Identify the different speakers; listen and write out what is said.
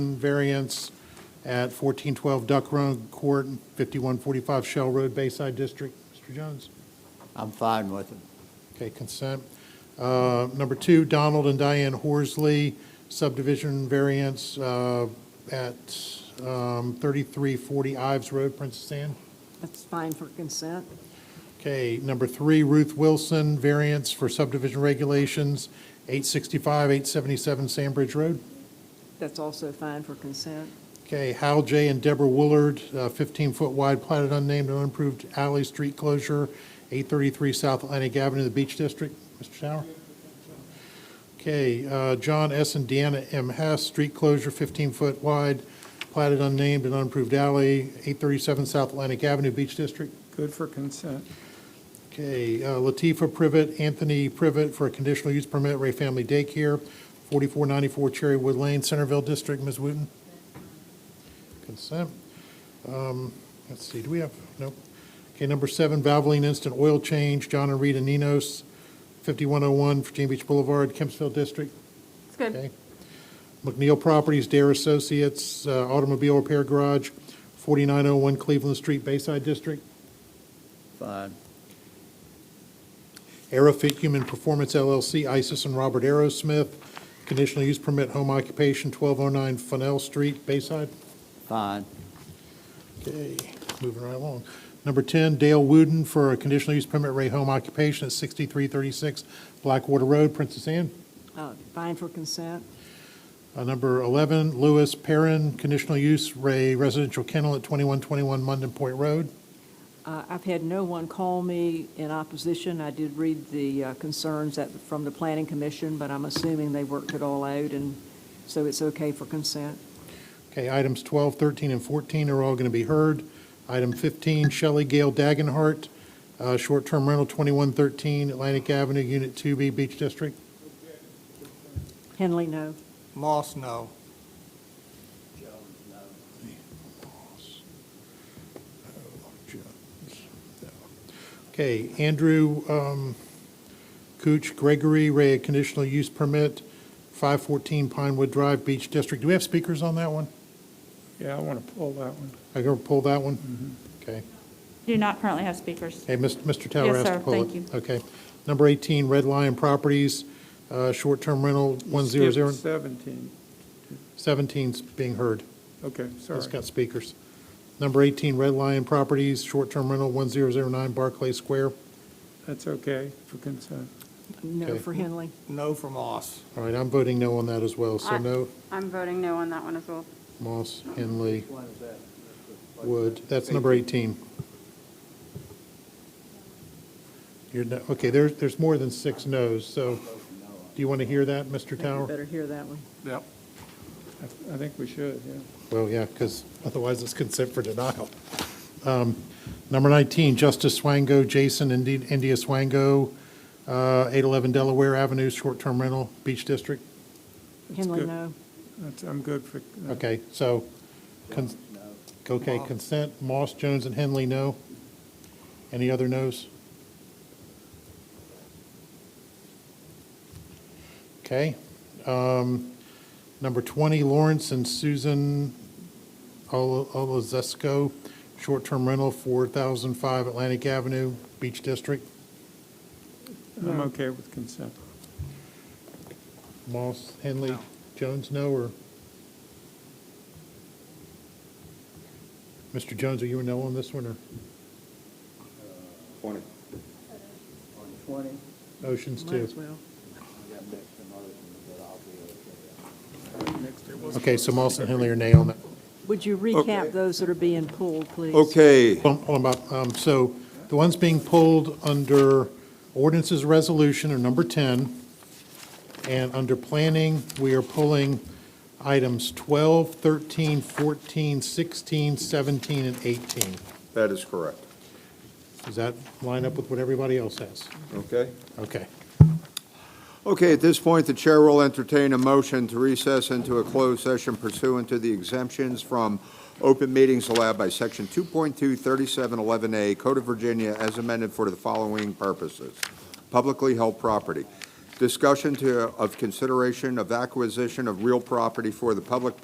Speaker 1: variance at 1412 Duck Run Court, 5145 Shell Road, Bayside District. Mr. Jones?
Speaker 2: I'm fine with it.
Speaker 1: Okay, consent. Uh, Number two, Donald and Diane Horsley, subdivision variance uh, at um, 3340 Ives Road, Princess Anne.
Speaker 3: That's fine for consent.
Speaker 1: Okay, number three, Ruth Wilson, variance for subdivision regulations, 865, 877 Sandbridge Road.
Speaker 3: That's also fine for consent.
Speaker 1: Okay, Hal J. and Deborah Woolard, 15-foot wide platted unnamed and unimproved alley street closure, 833 South Atlantic Avenue, the Beach District. Mr. Tower? Okay, uh, John S. and Deanna M. Hess, street closure, 15-foot wide platted unnamed and unimproved alley, 837 South Atlantic Avenue, Beach District.
Speaker 4: Good for consent.
Speaker 1: Okay, uh, Latifa Privet, Anthony Privet for a conditional use permit, Ray Family Daycare, 4494 Cherrywood Lane, Centerville District, Ms. Wooten? Consent. Um, Let's see, do we have, nope. Okay, number seven, Valvoline Instant Oil Change, John and Rita Ninos, 5101 Virginia Beach Boulevard, Kempsville District,
Speaker 3: It's good.
Speaker 1: okay? McNeil Properties, Dare Associates, uh, Automobile Repair Garage, 4901 Cleveland Street, Bayside District.
Speaker 2: Fine.
Speaker 1: Aerofit Human Performance LLC, Isis and Robert Aerosmith, conditional use permit, home occupation, 1209 Fennell Street, Bayside.
Speaker 2: Fine.
Speaker 1: Okay, moving right along. Number 10, Dale Wooden for a conditional use permit, Ray Home Occupation at 6336 Blackwater Road, Princess Anne.
Speaker 3: Uh, Fine for consent.
Speaker 1: Uh, Number 11, Lewis Perrin, conditional use, Ray Residential Kennel at 2121 Munden Point Road.
Speaker 3: Uh, I've had no one call me in opposition. I did read the uh, concerns that, from the Planning Commission, but I'm assuming they worked it all out, and so it's okay for consent.
Speaker 1: Okay, items 12, 13, and 14 are all going to be heard. Item 15, Shelley Gale Dagenhart, uh, short-term rental, 2113 Atlantic Avenue, Unit 2B, Beach District.
Speaker 3: Henley, no.
Speaker 4: Moss, no.
Speaker 1: Okay, Andrew um, Cooch Gregory, Ray, a conditional use permit, 514 Pinewood Drive, Beach District. Do we have speakers on that one?
Speaker 4: Yeah, I want to pull that one.
Speaker 1: I can pull that one? Okay.
Speaker 5: Do not currently have speakers.
Speaker 1: Hey, Mis- Mr. Tower asked
Speaker 5: Yes,
Speaker 1: to
Speaker 5: sir.
Speaker 1: pull it.
Speaker 5: Thank you.
Speaker 1: Okay. Number 18, Red Lion Properties, uh, short-term rental,
Speaker 4: Skip
Speaker 1: 100,
Speaker 4: Seventeen.
Speaker 1: 17's being heard.
Speaker 4: Okay, sorry.
Speaker 1: It's got speakers. Number 18, Red Lion Properties, short-term rental, 1009 Barclay Square.
Speaker 4: That's okay for consent.
Speaker 3: No
Speaker 1: Okay.
Speaker 3: for Henley.
Speaker 6: No for Moss.
Speaker 1: All right, I'm voting no on that as well, so
Speaker 7: Aye.
Speaker 1: no,
Speaker 7: I'm voting no on that one as well.
Speaker 1: Moss, Henley, Wood, that's number 18. You're, no- okay, there's, there's more than six no's, so do you want to hear that, Mr.
Speaker 3: I think we
Speaker 1: Tower?
Speaker 3: better hear that one.
Speaker 6: Yep.
Speaker 4: I I think we should, yeah.
Speaker 1: Well, yeah, because otherwise it's consent for denial. Um, Number 19, Justice Swango, Jason Indi- India Swango, uh, 811 Delaware Avenue, short-term rental, Beach District.
Speaker 3: Henley,
Speaker 4: good.
Speaker 3: no.
Speaker 4: That's, I'm good for, uh,
Speaker 1: Okay, so, cons- okay, consent, Moss, Jones, and Henley, no. Any other no's? Okay. um, Number 20, Lawrence and Susan Ol- Olazesko, short-term rental, 4005 Atlantic Avenue, Beach District.
Speaker 4: I'm okay with consent.
Speaker 1: Moss, Henley, Jones, no, or? Mr. Jones, are you a no on this one, or
Speaker 8: Twenty.
Speaker 2: Twenty.
Speaker 1: Oceans
Speaker 3: Might
Speaker 1: too?
Speaker 3: as well.
Speaker 1: Okay, so Moss and Henley are nay on that.
Speaker 3: Would you
Speaker 8: Okay.
Speaker 3: recap those that are being pulled, please?
Speaker 8: Okay,
Speaker 1: Hold on, hold on, Bob. Um, so the ones being pulled under ordinances resolution are number 10, and under planning, we are pulling items 12, 13, 14, 16, 17, and 18.
Speaker 8: that is correct.
Speaker 1: Does that line up with what everybody else has?
Speaker 8: Okay?
Speaker 1: Okay.
Speaker 8: Okay, at this point, the chair will entertain a motion to recess into a closed session pursuant to the exemptions from open meetings allowed by Section 2.23711A Code of Virginia as amended for the following purposes. Publicly held property. Discussion to, of consideration of acquisition of real property for the public